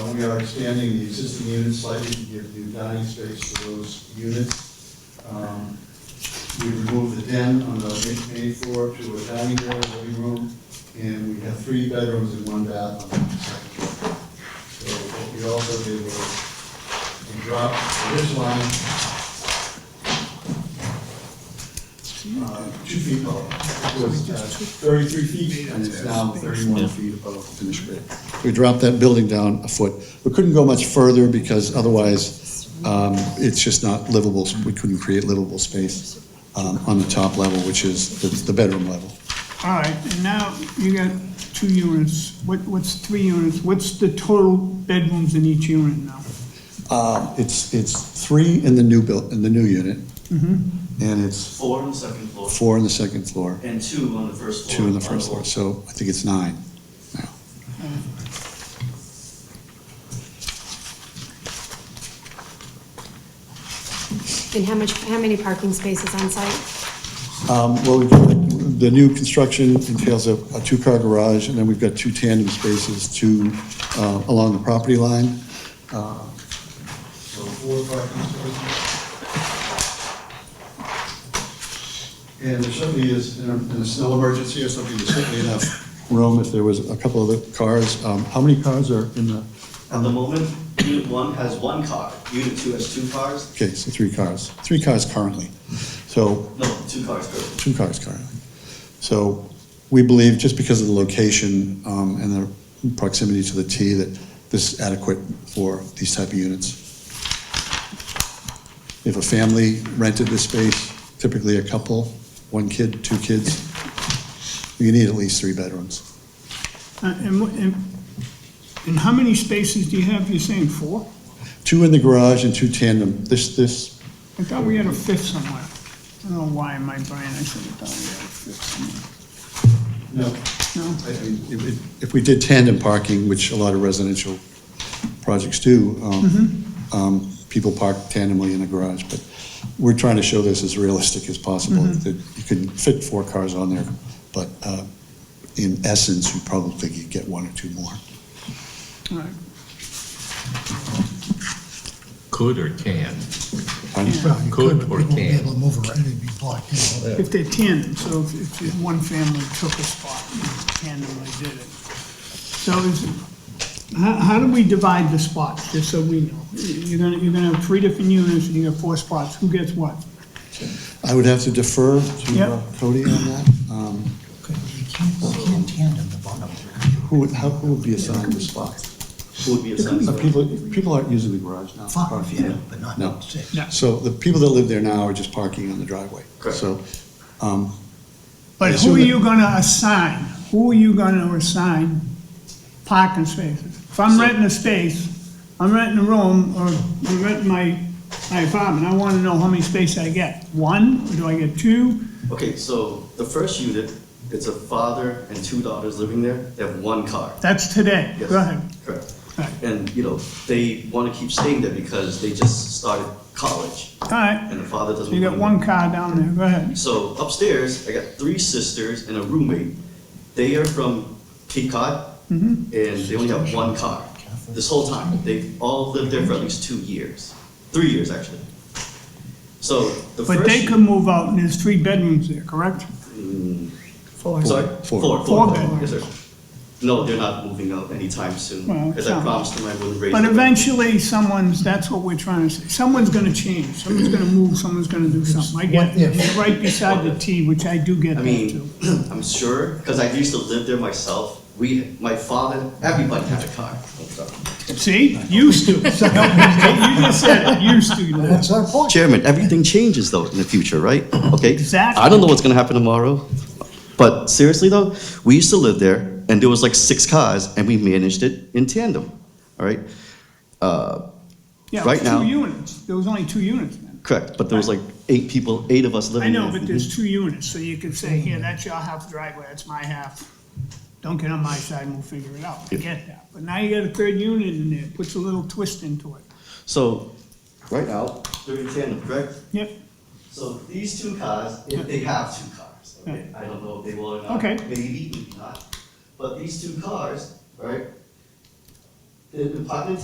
we are expanding the existing units slightly to give new dining space to those units. Um, We removed the den on the ma- main floor to a dining area, living room, and we have three bedrooms and one bath on the second floor. So what we also did was we dropped the ridge line uh, two feet above. It was uh, thirty-three feet, and it's now thirty-one feet above the finished grade. We dropped that building down a foot. We couldn't go much further because otherwise, um, it's just not livable. We couldn't create livable space, um, on the top level, which is the, the bedroom level. All right, and now you got two units, what, what's three units, what's the total bedrooms in each unit now? Uh, it's, it's three in the new build, in the new unit. And it's Four on the second floor four on the second floor, and two on the first floor. two on the first floor, so I think it's nine now. And how much, how many parking spaces on site? Um, Well, we've got- the new construction entails a a two-car garage, and then we've got two tandem spaces, two uh, along the property line. Uh, So four parking spaces. And there certainly is, in a, in a snow emergency or something, there's certainly enough Room, if there was a couple of the cars, um, how many cars are in the? At the moment, unit one has one car, unit two has two cars, Okay, so three cars, three cars currently. So no, two cars currently. two cars currently. So we believe, just because of the location um, and the proximity to the T, that this is adequate for these type of units. If a family rented this space, typically a couple, one kid, two kids, you need at least three bedrooms. Uh, And, what- and, and how many spaces do you have, you're saying four? Two in the garage and two tandem. This, this, I thought we had a fifth somewhere, I don't know why in my brain I said I thought we had a fifth somewhere. no, No? I- I- if- if- if we did tandem parking, which a lot of residential projects do, um, um, people park tandemly in the garage, but we're trying to show this as realistic as possible, that you can fit four cars on there, but uh, in essence, you probably could get one or two more. All right. Could or can? Pardon? Well, Could you could, but or we won't be can. able to move around, it'd be blocked in. If they're tandem, so if, if just one family took a spot, tandemly did it. So is, how, how do we divide the spots, just so we know? You're gonna, you're gonna have three different units, and you got four spots, who gets what? I would have to defer to uh, Yep. Cody on that. Um, Could- You can't, you can't tandem the bottom. Who would, how, who would be assigned the spot? Who would be assigned? Uh, People, people aren't using the garage now. Five, yeah, but No. not six. No. So the people that live there now are just parking on the driveway. Correct. So, um, But who are you gonna assign? Who are you gonna assign parking spaces? If I'm renting a space, I'm renting a room, or I'm renting my, my apartment, I wanna know how many spaces I get. One, or do I get two? Okay, so the first unit, it's a father and two daughters living there, they have one car. That's today, Yes, go ahead. Correct. All right. And, you know, they want to keep staying there because they just started college All right. and the father doesn't. You got want- one car down there, go ahead. So upstairs, I got three sisters and a roommate. They are from Cape Cod, and Mm-hmm. they only have one car. This whole time, they've all lived there for at least two years, three years actually. So the first. But they could move out, and there's three bedrooms there, correct? Four. Sorry, Four. four, Four four, bedrooms. yes, sir. No, they're not moving out anytime Well, soon, because I some. promised them I wouldn't raise. But the rent. eventually, someone's, that's what we're trying to say, someone's gonna change, someone's gonna move, someone's gonna do something, I get What if? it. You're Right beside the T, which I do get I that mean, too. I'm sure, because I used to live there myself. We, my father, everybody had a car. I'm sorry. See, used to. You just said, it. used to. you know. That's our point. Chairman, everything changes though in the future, right? Okay? Exactly. I don't know what's gonna happen tomorrow. But seriously though, we used to live there and there was like six cars and we managed it in tandem, all right? Yeah, right now- Two units, there was only two units then. Correct, but there was like eight people, eight of us I living there. know, but there's two units, so you could say, here, that's your half driveway, that's my half. Don't get on my side and we'll figure it out, I get that. But now you got a third unit in there, puts a little twist into it. So, right now, they're in tandem, correct? Yep, So these two cars, if they have two cars, okay, I don't know if they will or not. Okay. Maybe, maybe not. But these two cars, right? The the apartment